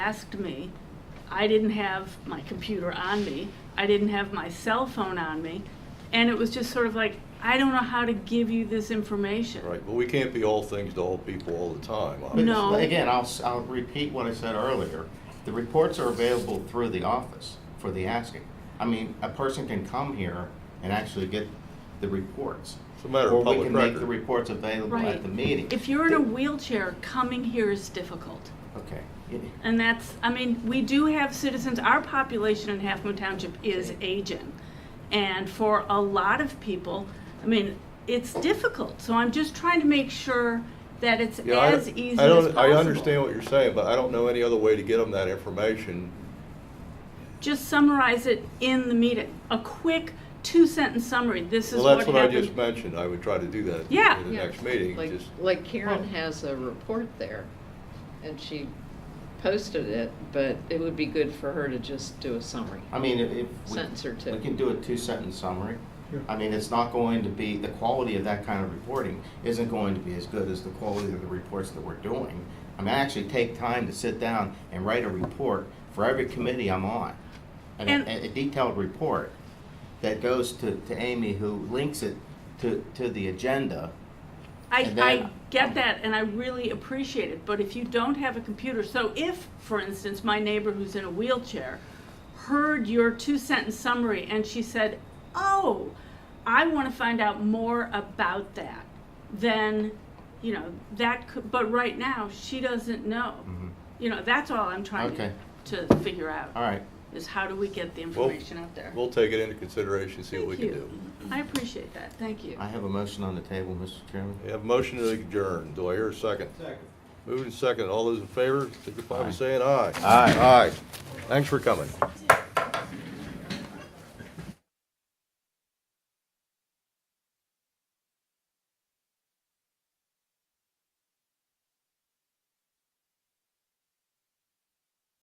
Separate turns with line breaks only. asked me. I didn't have my computer on me. I didn't have my cell phone on me. And it was just sort of like, I don't know how to give you this information.
Right, but we can't be all things to all people all the time, obviously.
But-
No.
but Again, I'll, s- I'll repeat what I said earlier. The reports are available through the office for the asking. I mean, a person can come here and actually get the reports.
It's a matter of
Or we
public
can make the
record.
reports available at
Right.
the meeting.
If you're in a wheelchair, coming here is difficult.
Okay. Yeah.
And that's, I mean, we do have citizens, our population in Half Moon Township is aging. And for a lot of people, I mean, it's difficult. So I'm just trying to make sure that it's
Yeah, I-
as easy as
I don't-
possible.
I understand what you're saying, but I don't know any other way to get them that information.
Just summarize it in the meeting, a quick two-sentence summary, this is
Well,
what
that's
happened.
what I just mentioned, I would try to do that
Yeah.
in the
Yeah,
next meeting,
Like-
just,
Like Karen
Well-
has a report there, and she posted it, but it would be good for her to just do a summary.
I mean, if. if we-
Sentence or two.
We can do a two-sentence summary.
Yeah.
I mean, it's not going to be, the quality of that kind of reporting isn't going to be as good as the quality of the reports that we're doing. I mean, I actually take time to sit down and write a report for every committee I'm on. And
And-
a, a detailed report that goes to, to Amy, who links it to, to the agenda.
I,
And then-
I get that, and I really appreciate it, but if you don't have a computer, so if, for instance, my neighbor who's in a wheelchair heard your two-sentence summary and she said, oh, I want to find out more about that, then, you know, that could, but right now, she doesn't know.
Mm-hmm.
You know, that's all I'm trying to,
Okay.
to figure out,
All right,
is how do we get the information out there?
we'll take it into consideration, see what we
Thank
can
you.
do.
I appreciate that, thank you.
I have a motion on the table, Mr. Chairman.
We have a motion to adjourn, do I hear a second? Second. Moving second, all those in favor, signify by saying aye. Aye. Aye, thanks for coming.